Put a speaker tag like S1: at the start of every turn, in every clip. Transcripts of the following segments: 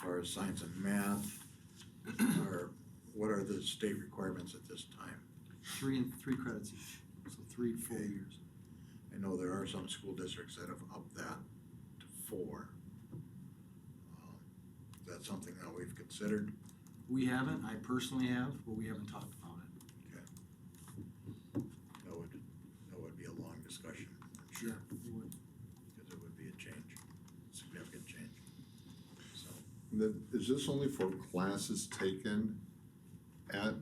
S1: far as science and math? Or what are the state requirements at this time?
S2: Three and, three credits each, so three full
S1: Okay.
S2: years.
S1: I know there are some school districts that have upped that to four. Um, Is that something that we've considered?
S2: We haven't, I personally have, but we haven't talked about it.
S1: That would, that would be a long discussion, I'm sure,
S2: We would.
S1: because it would be a change, significant change. So,
S3: Then, is this only for classes taken at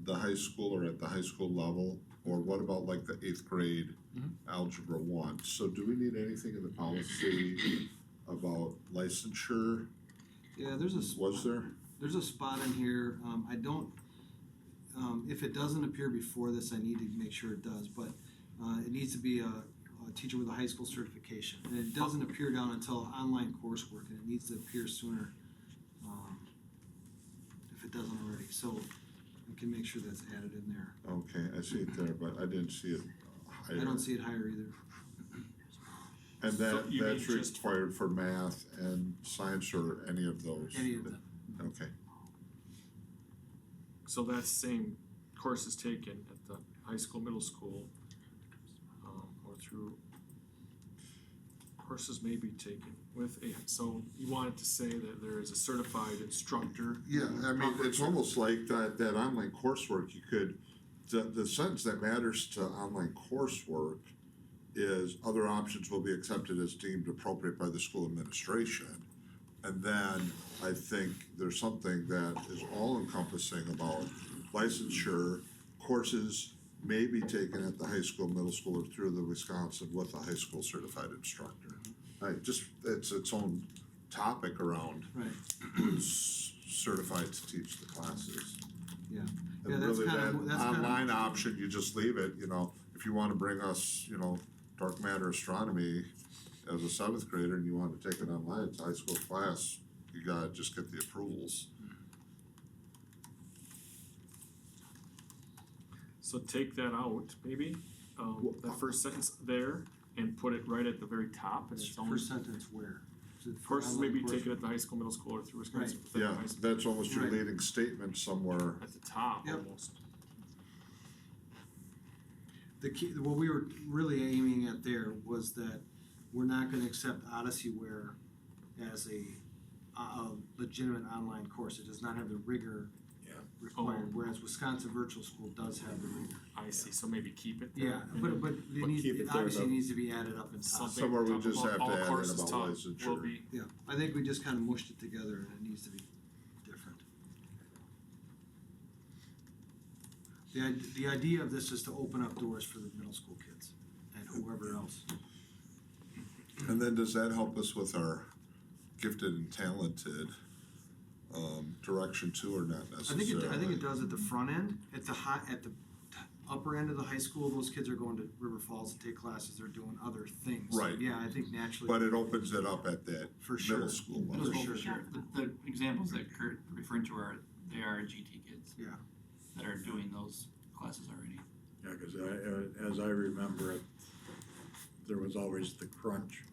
S3: the high school or at the high school level? Or what about like the eighth grade
S2: Mhm.
S3: algebra one? So do we need anything in the policy about licensure?
S2: Yeah, there's a. spot-
S3: Was there?
S2: There's a spot in here, um, I don't, um, if it doesn't appear before this, I need to make sure it does, but, uh, it needs to be a, a teacher with a high school certification. And it doesn't appear down until online coursework, and it needs to appear sooner, um, if it doesn't already, so I can make sure that's added in there.
S3: Okay, I see it there, but I didn't see it higher.
S2: I don't see it higher either.
S3: And
S4: So
S3: that,
S4: you mean
S3: that's
S4: just-
S3: required for math and science or any of those?
S2: Any of them.
S3: Okay,
S4: So that same course is taken at the high school, middle school, um, or through courses may be taken with a, so you wanted to say that there is a certified instructor.
S3: yeah, I mean, it's almost like that, that online coursework, you could, the, the sentence that matters to online coursework is other options will be accepted as deemed appropriate by the school administration. And then I think there's something that is all encompassing about licensure. Courses may be taken at the high school, middle school, or through the Wisconsin with a high school certified instructor. I just, it's its own topic around
S2: Right.
S3: who's certified to teach the classes.
S2: Yeah. Yeah,
S3: And
S2: that's
S3: really
S2: kinda-
S3: that
S2: that's kinda-
S3: online option, you just leave it, you know, if you wanna bring us, you know, dark matter astronomy as a seventh grader and you wanna take it online, it's a high school class, you gotta just get the approvals.
S4: So take that out, maybe, um,
S3: Well,
S4: that first sentence there and put it right at the very top and it's
S2: First
S4: almost.
S2: sentence where? Is it for
S4: Courses may
S2: online
S4: be
S2: coursework?
S4: taken at the high school, middle school, or through Wisconsin. within the
S3: Yeah,
S4: high school.
S3: that's almost your
S2: Right.
S3: leading statement somewhere.
S4: At the top
S2: Yep.
S4: almost.
S2: the key, what we were really aiming at there was that we're not gonna accept Odyssey Ware as a, a legitimate online course. It does not have the rigor
S1: Yeah.
S4: Oh.
S2: required, whereas Wisconsin Virtual School does have the rigor.
S4: I see, so maybe keep it there.
S2: Yeah, but, but it
S1: But
S2: needs,
S1: keep it
S2: it
S1: there,
S2: obviously
S1: though.
S2: needs to be added up in top.
S4: Something
S3: Somewhere we
S4: top
S3: just
S4: above
S3: have to
S4: all
S3: add in
S4: courses
S3: about
S4: taught will
S3: licensure.
S4: be
S2: Yeah, I think we just kinda mushed it together and it needs to be different. The, id- the idea of this is to open up doors for the middle school kids and whoever else.
S3: And then does that help us with our gifted and talented, um, direction too, or not
S2: I think it,
S3: necessarily?
S2: I think it does at the front end, at the high, at the upper end of the high school, those kids are going to River Falls to take classes, they're doing other things. So,
S3: Right.
S2: Yeah, I think naturally.
S3: But it opens it up at that
S2: For sure.
S3: middle school level.
S2: For
S5: Those
S2: sure.
S5: are The, the examples that Kurt referring to are, they are GT kids.
S2: Yeah.
S5: That are doing those classes already.
S1: yeah, because I, uh, as I remember it, there was always the crunch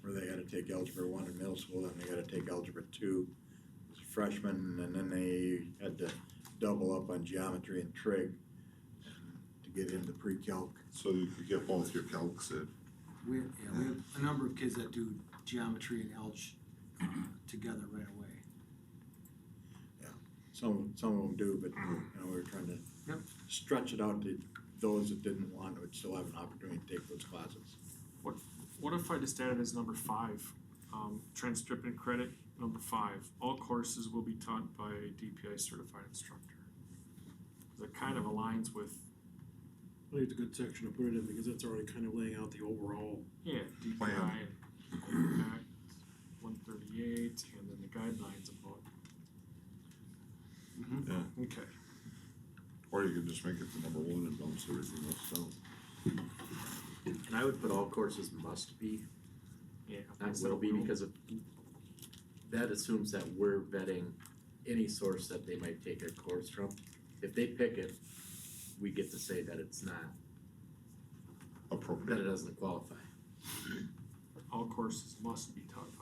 S1: where they had to take Algebra one in middle school, then they had to take Algebra two as a freshman, and then they had to double up on geometry and trig to get into pre-calc.
S3: So you could get both your calcs in.
S2: We, yeah, we have a number of kids that do geometry and alge, uh, together right away.
S1: Some, some of them do, but, you know, we were trying to
S2: Yep.
S1: stretch it out to those that didn't want, would still have an opportunity to take those classes.
S4: What if I just added as number five, um, transcript and credit, number five, all courses will be taught by a DPI certified instructor? That kind of aligns with,
S6: I think it's a good section to put it in because it's already kind of laying out the overall.
S4: yeah, DPI
S3: Plan.
S4: and Act one thirty-eight, and then the guidelines about.
S3: Yeah.
S4: Okay,
S3: Or you could just make it the number one and bounce everything else out.
S7: And I would put all courses must be,
S4: yeah.
S7: not will be, because of- that assumes that we're vetting any source that they might take a course from. If they pick it, we get to say that it's not, that it
S3: Appropriate.
S7: doesn't qualify.
S4: All courses must be taught by uh,